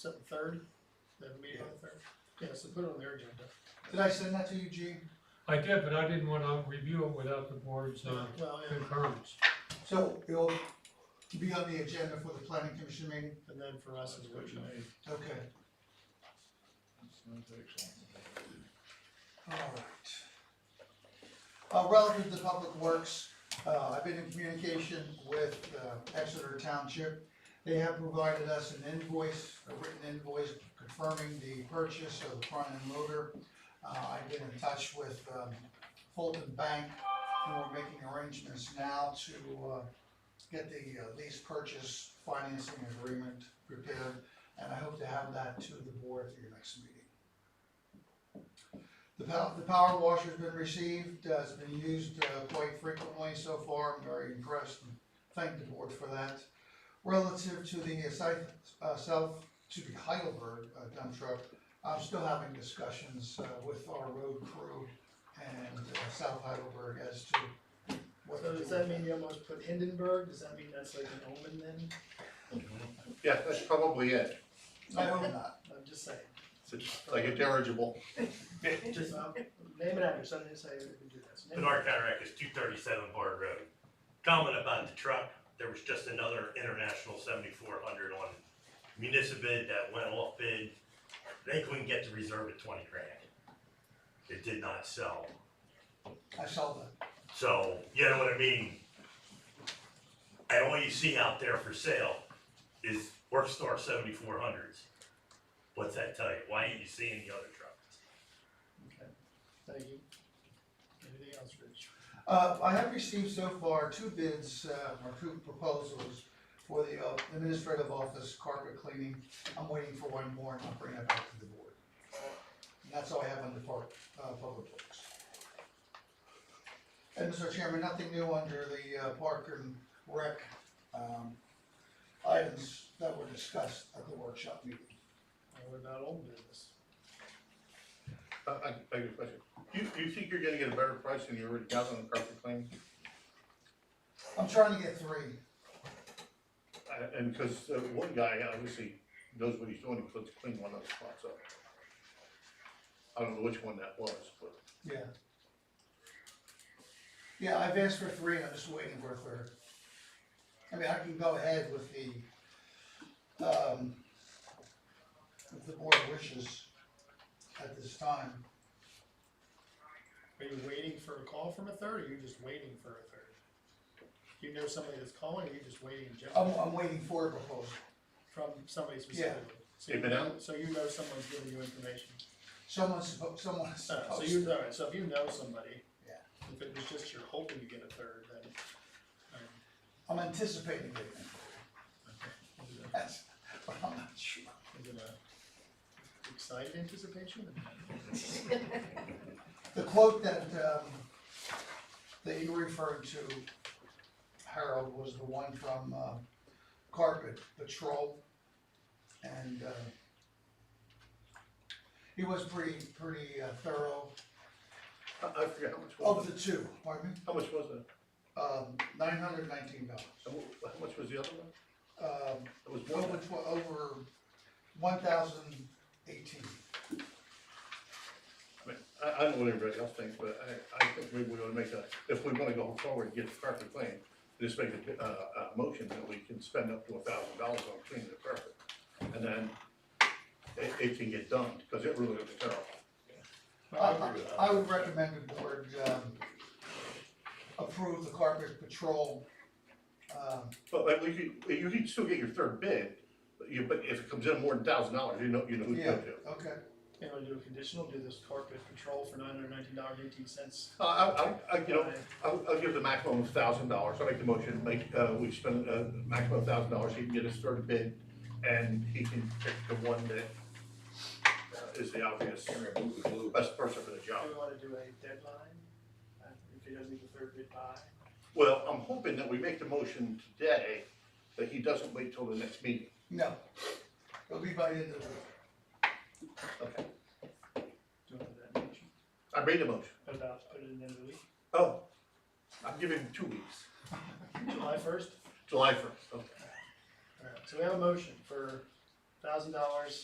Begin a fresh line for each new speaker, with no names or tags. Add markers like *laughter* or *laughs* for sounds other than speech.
Is that the third? They have a meeting on the third? Yeah, so put it on their agenda.
Did I send that to you, Gene?
I did, but I didn't wanna review it without the board's uh,
Well, and,
concurrence.
So it'll be on the agenda for the planning commission meeting?
and then for us as well.
Okay, alright. Uh, relative to public works, uh, I've been in communication with, uh, Exeter Township. They have provided us an invoice, a written invoice confirming the purchase of the front end loader. Uh, I've been in touch with, um, Fulton Bank, and we're making arrangements now to, uh, get the uh, lease purchase financing agreement prepared, and I hope to have that to the board at your next meeting. The pow- the power washer's been received, uh, it's been used, uh, quite frequently so far, I'm very impressed and thank the board for that. Relative to the south, uh, south, to the Heidelberg uh, dump truck, I'm still having discussions, uh, with our road crew and uh, South Heidelberg as to what to
So
do
does
with
that mean you almost put Hindenburg? Does that mean that's like an omen then?
Yeah, that's probably it,
I hope not.
I'm just saying.
it's just like a dirigible.
Just, um, name it after something, say we can do this. Name it.
Bernard Cataract is two thirty-seven Bard Road. Comment about the truck, there was just another international seventy-four hundred on municipal bid that went off bid. They couldn't get the reserve at twenty grand. It did not sell.
I saw that.
So, you know what I mean? And all you see out there for sale is Workstar seventy-four hundreds. What's that tell you? Why ain't you seeing the other trucks?
Thank you. Anything else, Rich?
Uh, I have received so far two bids, uh, or two proposals for the uh, administrative office carpet cleaning. I'm waiting for one more and I'll bring it back to the board. And that's all I have on the part, uh, public works. And Mr. Chairman, nothing new under the, uh, park and rec, um, items that were discussed at the workshop meeting.
Or What about old business?
I, I, I have a question. You, you think you're gonna get a better price than you already got on the carpet clean?
I'm trying to get three.
Uh, And, cause uh, one guy obviously knows what he's doing, he puts clean one of the spots up. I don't know which one that was, but
Yeah. Yeah, I've asked for three, I'm just waiting for a third. I mean, I can go ahead with the, um, if the board wishes at this time.
Are you waiting for a call from a third, or you just waiting for a third? Do you know somebody that's calling, or you just waiting in
I'm,
general
I'm waiting for a proposal.
from somebody specifically? So you
They've been
know, so you know someone's giving you information?
Someone's, suppo- someone's
Alright, so
supposed,
you, alright, so if you know somebody.
Yeah.
If it was just you're hoping to get a third, then. um,
I'm anticipating it, *laughs*
is it
that's, but I'm not sure.
a- Is it a excited anticipation?
The quote that, um, that you referred to, Harold, was the one from, uh, Carpet Patrol. And, uh, he was pretty, pretty uh, thorough.
I, I forget how much
Of
was
Oh, the
it?
two, pardon me,
How much was it?
um, nine hundred nineteen dollars.
How mu- how much was the other one?
Um,
It was more
over,
than,
tw- over one thousand eighteen.
I mean, I, I don't know what everybody else thinks, but I, I think maybe we ought to make a, if we wanna go forward and get the carpet clean, just make a, uh, a motion that we can spend up to a thousand dollars on cleaning the carpet. And then it, it can get done, cause it really looks terrible.
I, I would recommend the board, um, approve the Carpet Patrol, um,
But, but we could, you could still get your third bid, but you, but if it comes in more than thousand dollars, you know, you know who to
Yeah,
go to.
okay,
You know, do a conditional, do this corporate patrol for nine hundred nineteen dollars eighteen cents. Uh,
Uh, I, I, I, you know, I'll, I'll give the maximum of thousand dollars, I'll make the motion, make, uh, we spend a maximum of thousand dollars, he can get his third bid, and he can pick the one that uh, is the obvious, best person for the
Do
job.
we wanna do a deadline? Uh, If he doesn't get the third bid by,
Well, I'm hoping that we make the motion today, that he doesn't wait till the next meeting.
no, it'll be by the end of the week,
Okay.
do it for that motion.
I made the motion.
What about, put it in the end of the week,
Oh, I'm giving him two weeks,
July first?
July first, okay.
Alright, so we have a motion for thousand dollars